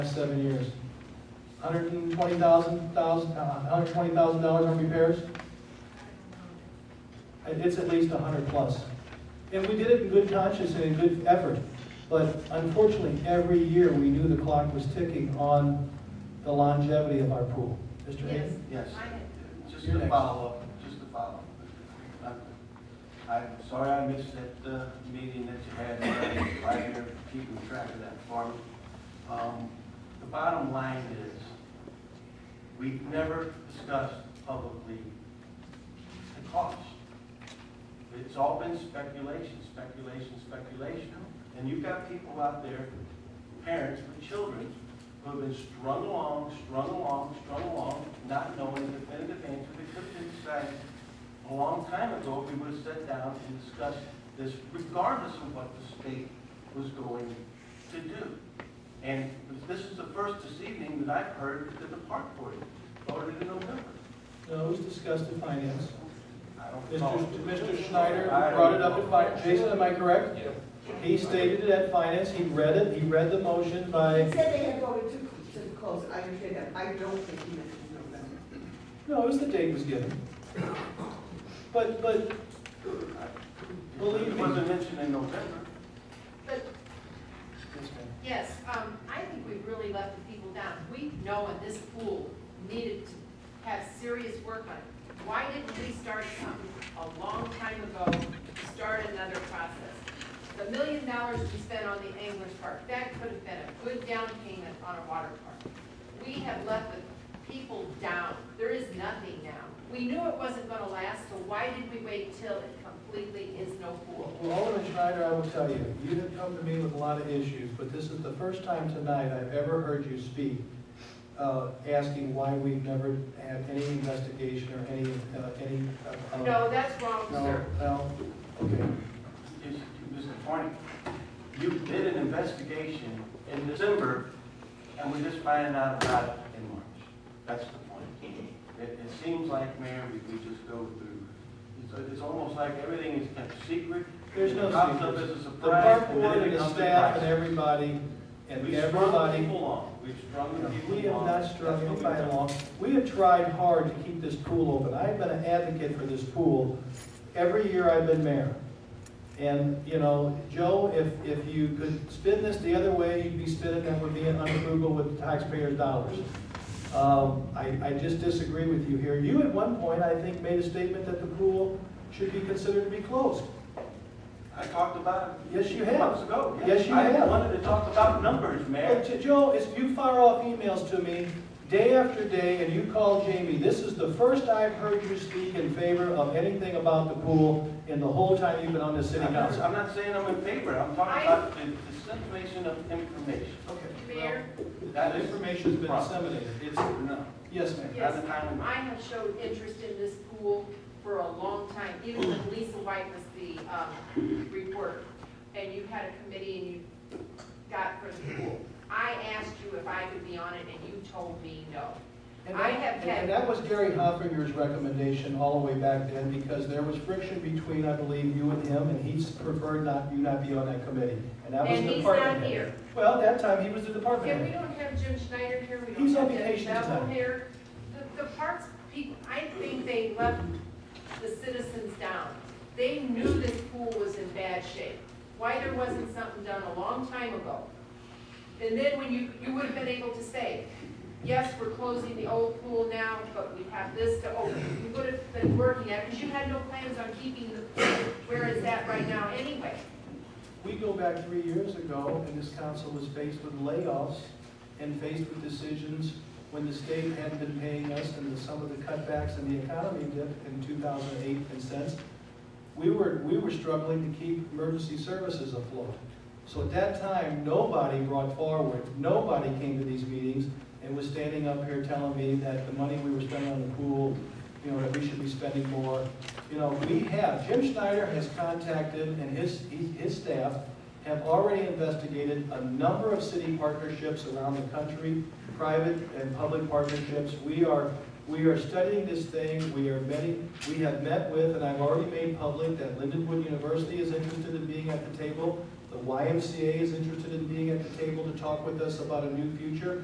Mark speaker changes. Speaker 1: seven years. Hundred and twenty thousand, thousand, uh, hundred and twenty thousand dollars on repairs? It- It's at least a hundred plus. And we did it in good conscience and in good effort, but unfortunately, every year, we knew the clock was ticking on the longevity of our pool. Mr.
Speaker 2: Yes.
Speaker 1: Hayden?
Speaker 3: Yes,
Speaker 2: I had-
Speaker 3: just
Speaker 1: You're
Speaker 3: to
Speaker 1: next.
Speaker 3: follow up, just to follow up. I'm- I'm sorry I missed that uh, meeting that you had, about it, right here, keeping track of that for me. Um, The bottom line is, we've never discussed publicly the cost. It's all been speculation, speculation, speculation. And you've got people out there, parents with children, who have been strung along, strung along, strung along, not knowing the definitive answer. They could have decided a long time ago, if we would have sat down and discussed this regardless of what the state was going to do. And this is the first this evening that I've heard that the park board voted in November.
Speaker 1: No, it was discussed at finance.
Speaker 3: I don't
Speaker 1: Mr.
Speaker 3: know.
Speaker 1: Sch- Mr. Schneider
Speaker 3: I don't
Speaker 1: brought it up
Speaker 3: know.
Speaker 1: at finance. Jason, am I correct? He stated it at finance, he read it, he read the motion by
Speaker 4: He said they had voted to, to close, I understand that, I don't think he meant November.
Speaker 1: No, it was the date was given. But, but, Believe me.
Speaker 3: It wasn't mentioned in November.
Speaker 2: But, yes, um, I think we really let the people down. We know in this pool needed to have serious work on it. Why didn't we start something a long time ago, to start another process? The million dollars we spent on the Anglers Park, that could have been a good down payment on a water park. We have let the people down. There is nothing now. We knew it wasn't gonna last, so why did we wait till it completely is no pool?
Speaker 1: well, Alderman Schneider, I will tell you, you have come to me with a lot of issues, but this is the first time tonight I've ever heard you speak, uh, asking why we've never had any investigation or any, uh, any. uh, uh,
Speaker 2: No, that's wrong,
Speaker 1: No,
Speaker 2: sir.
Speaker 1: no, okay.
Speaker 3: Yes, Mr. Forney, you did an investigation in December, and we just finding out about it in March. That's the point. It, it seems like, Mayor, we, we just go through, it's, it's almost like everything is kept secret.
Speaker 1: There's no
Speaker 3: It pops up
Speaker 1: secret.
Speaker 3: as a
Speaker 1: The
Speaker 3: surprise,
Speaker 1: park
Speaker 3: and then
Speaker 1: board
Speaker 3: it
Speaker 1: and the
Speaker 3: becomes a
Speaker 1: staff and
Speaker 3: crisis.
Speaker 1: everybody, and
Speaker 3: We've strung
Speaker 1: everybody
Speaker 3: people along, we've strung the people along.
Speaker 1: We have not
Speaker 3: That's
Speaker 1: struck
Speaker 3: what
Speaker 1: it
Speaker 3: we've
Speaker 1: by
Speaker 3: done.
Speaker 1: law. We have tried hard to keep this pool open. I've been an advocate for this pool every year I've been mayor. And, you know, Joe, if, if you could spin this the other way, you'd be spinning that would be unfrugal with taxpayers' dollars. Um, I, I just disagree with you here. You at one point, I think, made a statement that the pool should be considered to be closed.
Speaker 3: I talked about it.
Speaker 1: Yes, you have.
Speaker 3: Months ago.
Speaker 1: Yes, you
Speaker 3: I
Speaker 1: have.
Speaker 3: wanted to talk about numbers, Mayor.
Speaker 1: Look, to Joe, it's, you fire off emails to me day after day, and you call Jamie. This is the first I've heard you speak in favor of anything about the pool in the whole time you've been on the city
Speaker 3: I'm not-
Speaker 1: council.
Speaker 3: I'm not saying I'm in favor, I'm talking
Speaker 2: I-
Speaker 3: about the dissemination of information.
Speaker 2: Mayor,
Speaker 1: Well, That information's been disseminated.
Speaker 3: It's, no,
Speaker 1: Yes, ma'am.
Speaker 3: not
Speaker 2: yes,
Speaker 3: the time.
Speaker 2: I have showed interest in this pool for a long time, even when Lisa White was the um, reporter. And you had a committee and you got for the pool. I asked you if I could be on it and you told me no.
Speaker 1: And
Speaker 2: I
Speaker 1: that-
Speaker 2: have
Speaker 1: and-
Speaker 2: had-
Speaker 1: And that was Gary Hoffinger's recommendation all the way back then, because there was friction between, I believe, you and him, and he preferred not, you not be on that committee. And that was
Speaker 2: And
Speaker 1: the
Speaker 2: he's
Speaker 1: department
Speaker 2: not
Speaker 1: head.
Speaker 2: here.
Speaker 1: Well, at that time, he was the department
Speaker 2: And we
Speaker 1: head.
Speaker 2: don't have Jim Schneider here, we
Speaker 1: He's on
Speaker 2: don't have Debbie
Speaker 1: vacation
Speaker 2: Bevel
Speaker 1: tonight.
Speaker 2: here. The, the parks people, I think they left the citizens down. They knew this pool was in bad shape. Why there wasn't something done a long time ago? And then when you, you would have been able to say, yes, we're closing the old pool now, but we have this to open. You would have been working at it, because you had no plans on keeping the pool where it's at right now anyway.
Speaker 1: We go back three years ago, and this council was faced with layoffs and faced with decisions when the state had been paying us and the- some of the cutbacks in the economy did in 2008 and since. We were, we were struggling to keep emergency services afloat. So at that time, nobody brought forward, nobody came to these meetings and was standing up here telling me that the money we were spending on the pool, you know, that we should be spending more. You know, we have, Jim Schneider has contacted and his, he- his staff have already investigated a number of city partnerships around the country, private and public partnerships. We are, we are studying this thing, we are many, we have met with, and I've already made public that Lindenwood University is interested in being at the table. The YMCA is interested in being at the table to talk with us about a new future.